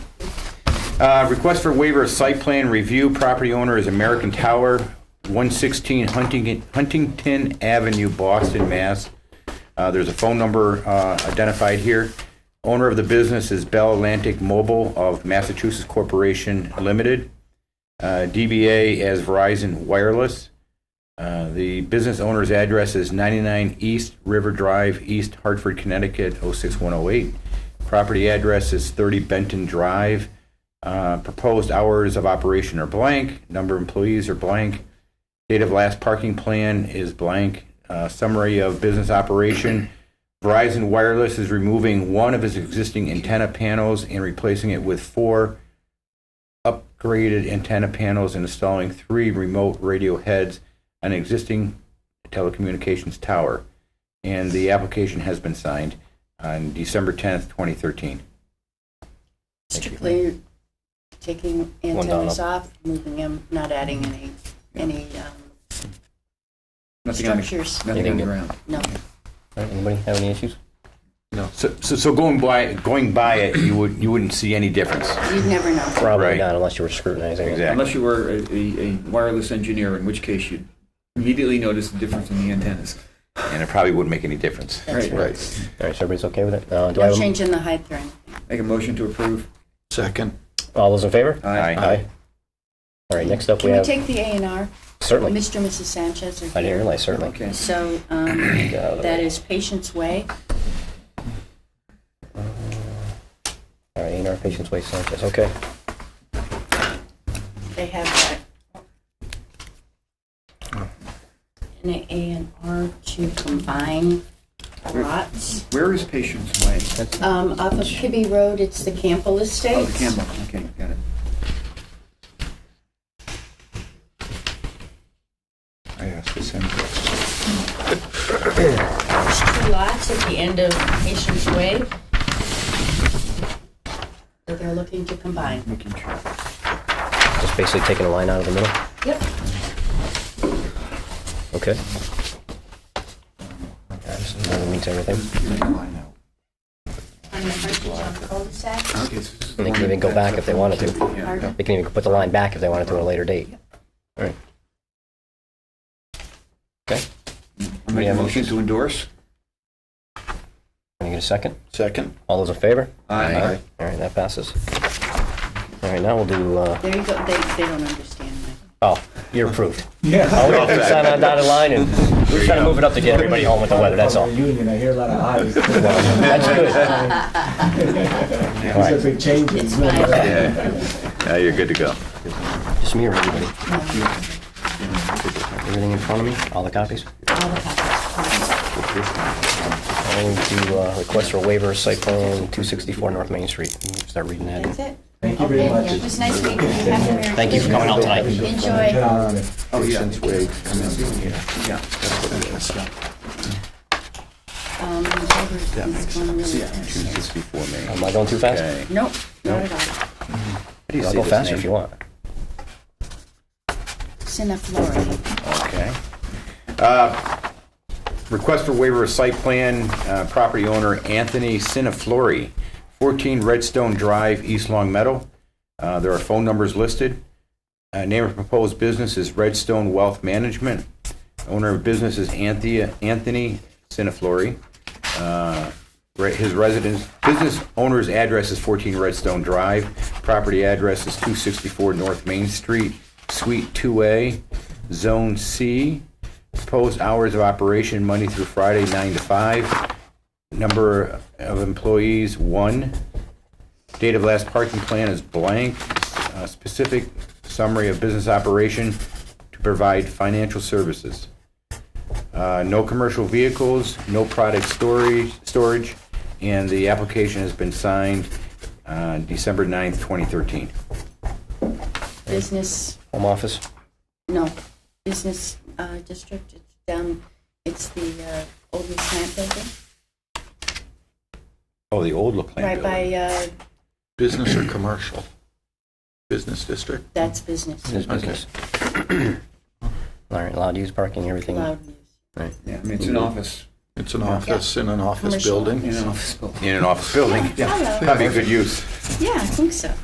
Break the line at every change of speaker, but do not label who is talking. Uh, Request for waiver of site plan review. Property owner is American Tower, 116 Hunting- Huntington Avenue, Boston, Mass. Uh, There's a phone number uh, identified here. Owner of the business is Bell Atlantic Mobile of Massachusetts Corporation Limited, uh, DBA as Verizon Wireless. Uh, The business owner's address is 99 East River Drive, East Hartford, Connecticut, 06108. Property address is 30 Benton Drive. Uh, Proposed hours of operation are blank, number of employees are blank, date of last parking plan is blank, Uh, summary of business operation. Verizon Wireless is removing one of its existing antenna panels and replacing it with four upgraded antenna panels and installing three remote radio heads on an existing telecommunications tower. And the application has been signed on December 10th, 2013.
Strictly taking antennas off, moving them, not adding any, any, um,
Nothing on the-
structures,
Nothing on the ground.
no.
All right, Anybody have any issues?
So, so, so going by, going by it, you would, you wouldn't see any difference.
You'd never know.
Probably
Right.
not unless you were scrutinizing it.
Exactly.
Unless you were a, a, a wireless engineer, in which case you'd immediately notice the difference in the antennas.
And it probably wouldn't make any difference.
That's
Right.
Right.
All right, so everybody's okay with it? Uh, Do I
No
have, a-
change in the height or anything.
Make a motion to approve.
Second.
all those in favor?
Aye.
All right, next up we
Can we
have,
take the A and R?
certainly,
Mr. and Mrs. Sanchez are here.
I didn't realize, certainly.
Okay.
So, um,
out of the
that
way.
is Patient's Way.
All right, A&R Patients Way Sanchez, okay.
They have that. An A and R to combine lots.
Where is Patience Way?
Um, off of Kibbe Road, it's the Campbell
Oh,
Estates.
the Campbell. Okay, got it.
I asked the same question.
There's two lots at the end of Patient's Way that they're looking to combine.
Making sure.
Just basically taking a line out of the middle,
Yep.
okay. All right, so That means everything.
Here's the line out.
On the frontage on cul-de-sac.
Okay, so this is the
They
one
can even go
that's
back
up
if they
on
wanted
Cape.
to.
Yeah.
Pardon?
They can even put the line back if they wanted to at a later date. All right. Okay,
I'll Make a motion to endorse.
can you get a second?
Second.
All those in favor?
Aye.
All right, all right, that passes. All right, now we'll do, uh,
There you go, they, they don't understand that.
Oh, you're approved. Yeah. All we have to do is sign on dotted line, and we're trying to move it up to get everybody home with the weather, that's all. Well,
Union, I hear a lot of ayes.
That's good.
These are big changes.
It's fine.
Yeah, you're good to go.
Just me or everybody? Everything in front of me, all the copies?
All the copies.
I need to uh, request for waiver, of site plan 264 North Main Street. Let me Start reading that.
That's it.
Thank you very much.
It was nice meeting you. Happy Merry
Thank you for coming out tonight.
Christmas.
Get
Enjoy.
out on it.
Oh, yeah.
Um, it's going really fast.
Choose this before me.
Am I going too fast?
Okay.
Nope, not at all.
How do you
I'll
say
go
this
faster if
name?
you want.
Sinaflora.
Okay. Uh, Request for waiver of site plan, uh, property owner Anthony Siniflori, 14 Redstone Drive, East Long Meadow. Uh, There are phone numbers listed. Uh, Name of proposed business is Redstone Wealth Management. Owner of business is Anthea Anthony Siniflori. Uh, re- His residence, business owner's address is 14 Redstone Drive. Property address is 264 North Main Street, Suite 2A, Zone C. Proposed hours of operation, Monday through Friday, 9 to 5. Number of employees, 1. Date of last parking plan is blank. Uh, Specific summary of business operation to provide financial services. Uh, No commercial vehicles, no product storage, storage, and the application has been signed uh, December 9th, 2013.
Business,
Home office?
no, business, uh, district, it's down, it's the, uh, old Miss Plant Building,
Oh, the old La Plante
right
building.
by, uh,
Business or commercial? Business district?
that's business,
His business. All right, allowed use parking, everything. All
loud news.
right.
Yeah, I mean, it's an office,
It's an office in an office
Commercial.
building.
uh,
an office building.
In an office building.
Hello,
That'd be good use.
yeah, I think so.